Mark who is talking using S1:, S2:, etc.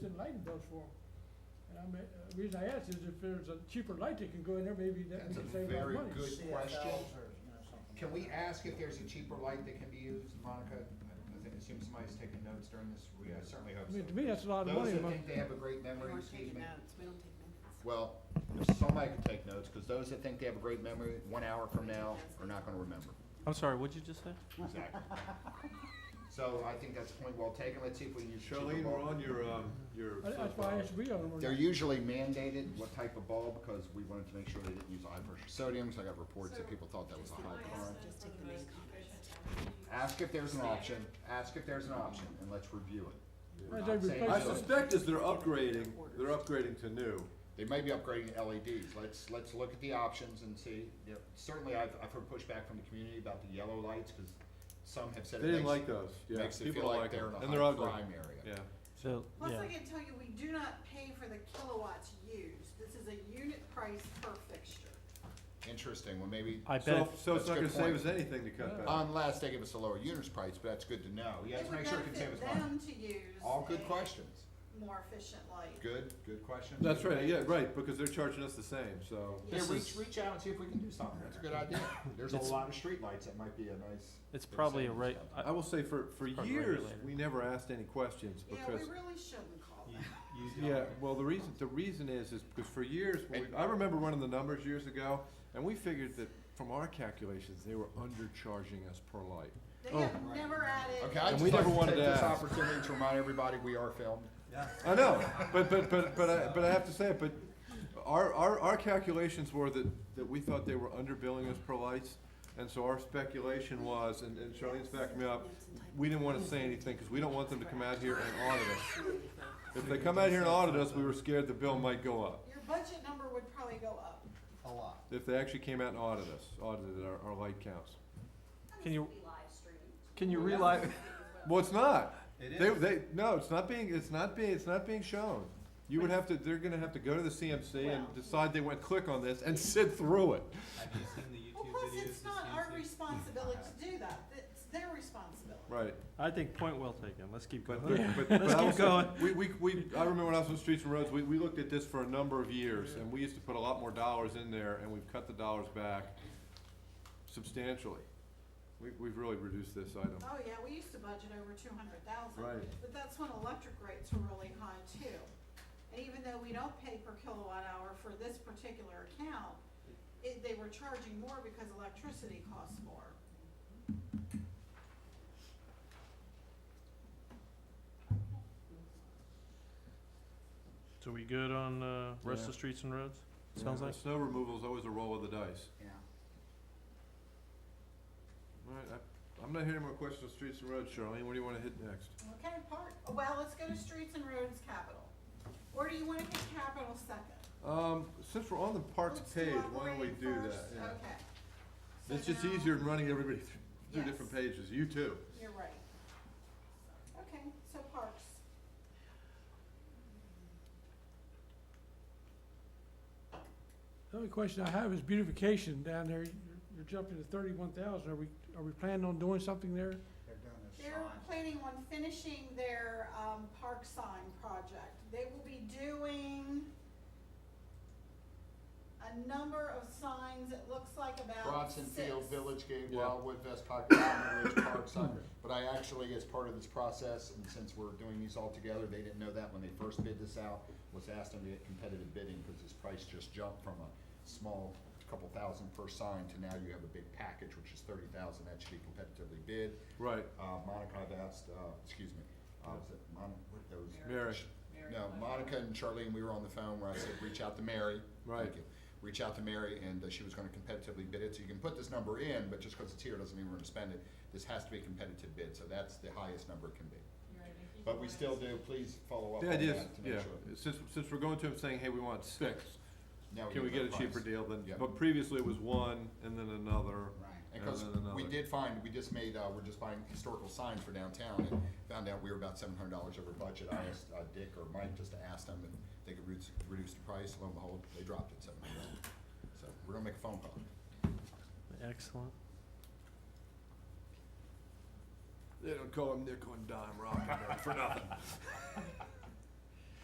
S1: lighting bills for them. And I mean, uh, the reason I ask is if there's a cheaper light that can go in there, maybe that we
S2: That's a
S1: can save a lot of
S2: very
S1: money.
S2: good-
S3: CFLs
S2: question.
S3: or, you know, something
S2: Can
S3: like
S2: we
S3: that.
S2: ask if there's a cheaper light that can be used, Monica? I- I think- assume somebody's taking notes during this, we I certainly hope
S1: I
S2: so.
S1: mean, to me, that's a lot of
S2: Those
S1: money,
S2: that
S1: Mo-
S2: think they have a great
S4: We
S2: memory,
S4: weren't
S2: excuse
S4: taking
S2: me.
S4: notes, we don't take minutes.
S2: Well, if somebody can take notes, because those that think they have a great memory, one hour from now, are not gonna remember.
S5: I'm sorry, what'd you just say?
S2: Exactly. So I think that's a point well taken. Let's see if we can use cheaper
S6: Charlene, we're
S2: bulb.
S6: on your, um, your.
S1: I- that's why I asked we own
S2: They're
S1: one.
S2: usually mandated what type of bulb, because we wanted to make sure they didn't use high pressure sodium, 'cause I got reports that people thought that was a high current.
S4: Just take the main comment.
S2: Ask if there's an option, ask if there's an option, and let's review it. We're
S1: As
S2: not
S1: they
S2: saying
S6: I
S1: replace
S2: do it.
S1: it.
S6: suspect as they're upgrading, they're upgrading to new.
S2: They may be upgrading to LEDs. Let's, let's look at the options and see. You know, Certainly, I've, I've heard pushback from the community about the yellow lights, because some have
S6: They
S2: said it
S6: didn't
S2: makes,
S6: like those, yeah.
S2: makes it
S6: People
S2: feel
S6: don't
S2: like they're in
S6: them.
S2: a
S6: And they're
S2: high
S6: ugly.
S2: crime area.
S6: Yeah.
S5: So,
S4: Plus, I
S5: yeah,
S4: can tell you, we do not pay for the kilowatts used. This is a unit price per fixture.
S2: Interesting, well, maybe,
S5: I bet,
S6: So,
S5: if-
S6: so
S2: That's
S6: it's not
S2: a
S6: gonna
S2: good
S6: save
S2: point.
S6: us anything to cut back.
S2: unless they give us a lower units price, but that's good to know. Yeah,
S4: It
S2: let's
S4: would
S2: make sure it can save
S4: benefit
S2: us money.
S4: them to use.
S2: All good
S4: a
S2: questions.
S4: More efficient light.
S2: Good, good questions.
S6: That's right, yeah, right, because they're charging us the same, so.
S2: Yeah,
S5: This
S2: reach,
S5: is-
S2: reach out and see if we can do something. That's a good idea. There's a
S5: It's-
S2: lot of streetlights. That might be a nice.
S5: it's probably a right,
S2: incentive.
S6: I will say for, for
S5: Or
S6: years,
S5: regulator.
S6: we never asked any questions
S4: Yeah, we
S6: because,
S4: really shouldn't call that.
S6: yeah, well, the reason, the reason is, is because for years, when we- I remember running the numbers years ago, and we figured that from our calculations, they were undercharging us per light.
S4: They
S6: Oh.
S4: have never added.
S2: Okay, I
S6: And
S2: just
S6: we
S2: like
S6: never
S2: to
S6: wanted
S2: take
S6: to
S2: this
S6: ask.
S2: opportunity to remind everybody we are filmed.
S6: I know, but, but, but, but I, but I have to say it, but our, our, our calculations were that, that we thought they were underbilling us per lights. And so our speculation was, and, and Charlene's backing me up, we didn't wanna say anything, cause we don't want them to come out here and audit us. If they come out here and audit us, we were scared the bill might go up.
S4: Your budget number would probably go up.
S3: A lot.
S6: If they actually came out and audited us, audited our, our light counts.
S5: can you, can you relive,
S6: Well, it's not.
S3: It
S6: They,
S3: is.
S6: they, no, it's not being, it's not being, it's not being shown. You would have to, they're gonna have to go to the CMC and
S4: Well-
S6: decide they went click on this and sit through it.
S7: Have you seen the
S4: Well,
S7: YouTube
S4: plus,
S7: videos?
S4: it's not our responsibility to do that. It's their responsibility.
S6: Right.
S5: I think point well taken, let's keep
S6: But,
S5: going.
S6: but, but
S5: Let's
S6: I
S5: keep
S6: also-
S5: going.
S6: We, we, we, I remember when I was on Streets and Roads, we, we looked at this for a number of years, and we used to put a lot more dollars in there, and we've cut the dollars back substantially. We, we've really reduced this item.
S4: Oh, yeah, we used to budget over two hundred thousand.
S6: Right.
S4: But that's when electric rates were really high too. And even though we don't pay per kilowatt hour for this particular account, it, they were charging more because electricity costs more.
S5: So we good on, uh, rest
S6: Yeah.
S5: of streets and roads? Sounds
S6: Yeah,
S5: like,
S6: Snow removal is always a roll of the dice.
S3: Yeah.
S6: All right, I, I'm not hearing more questions on Streets and Roads, Charlene, what do you wanna hit next?
S4: Okay, part, well, let's go to streets and roads capital. Or do you wanna pick capital second?
S6: Um, since we're on the parks
S4: Let's
S6: page,
S4: our
S6: why don't we
S4: grade
S6: do that?
S4: first.
S6: Yeah.
S4: Okay. So
S6: It's just
S4: now-
S6: easier than running everybody through through
S4: Yes.
S6: different pages, you too.
S4: You're right. Okay, so parks.
S1: The only question I have is beautification down there. You're- You're jumping to thirty-one thousand. Are we, are we planning on doing something there?
S3: They're doing
S4: They're
S3: this
S4: planning on finishing their um, park sign project. They will be doing a number of signs, it looks like about
S2: Bronson
S4: six.
S2: Field, Village Gate,
S6: Yeah.
S2: Wildwood, Vest Pocket, Mountain Ridge, Park, Sun. But I actually, as part of this process, and since we're doing these all together, they didn't know that when they first bid this out, was asked them to get competitive bidding, because this price just jumped from a small couple thousand per sign to now you have a big package, which is thirty thousand, that should be competitively bid.
S6: Right,
S2: Uh, Monica, I've asked, uh, excuse me, uh, was it Mon, that was?
S6: Mary.
S2: No, Monica and Charlene, we were on the phone where I said, reach out to Mary.
S6: Right.
S2: Thank you. Reach out to Mary, and uh, she was gonna competitively bid it, so you can put this number in, but just because it's here doesn't mean we're gonna spend it. This has to be a competitive bid, so that's the highest number it can be. But we still do, please follow up
S6: The
S2: on that
S6: idea is,
S2: to
S6: yeah,
S2: make sure.
S6: since, since we're going to them saying, hey, we want six,
S2: Now
S6: can we get a
S2: that
S6: cheaper
S2: price.
S6: deal than,
S2: Yeah.
S6: but previously it was one and then another.
S3: Right.
S2: And because
S6: And then
S2: we
S6: another.
S2: did find, we just made, uh, we're just buying historical signs for downtown and found out we were about seven hundred dollars over budget. I asked, uh, Dick or Mike just to ask them if they could reduce, reduce the price. Lo and behold, they dropped it seven hundred dollars. So we're gonna make a phone call.
S5: excellent.
S6: They don't call him nickel and dime rocking them for nothing.